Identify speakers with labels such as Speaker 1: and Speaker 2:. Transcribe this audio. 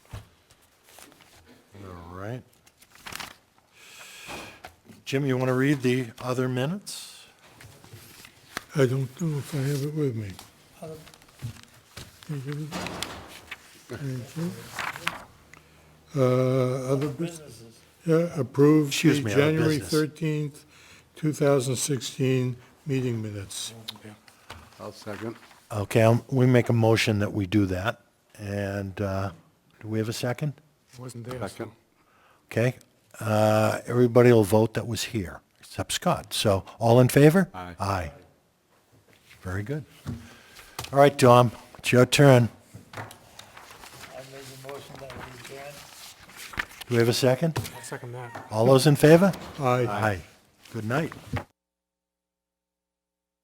Speaker 1: right. Jim, you want to read the other minutes?
Speaker 2: I don't know if I have it with me. Can you give it? Thank you. Uh, Other businesses. Yeah, approved the
Speaker 1: Excuse me, other
Speaker 2: January
Speaker 1: business.
Speaker 2: 13th, 2016 meeting minutes.
Speaker 3: I'll second.
Speaker 1: Okay, I'll- we make a motion that we do that. And uh, do we have a second?
Speaker 4: Wasn't there. so-
Speaker 3: Second.
Speaker 1: Okay. Uh, Everybody will vote that was here, except Scott. So all in favor?
Speaker 3: Aye.
Speaker 1: Aye. Very good. All right, Tom, it's your turn.
Speaker 4: I made the motion that we adjourn.
Speaker 1: Do we have a second?
Speaker 4: I'll second that.
Speaker 1: All those in favor?
Speaker 2: Aye.
Speaker 1: Aye. Good night.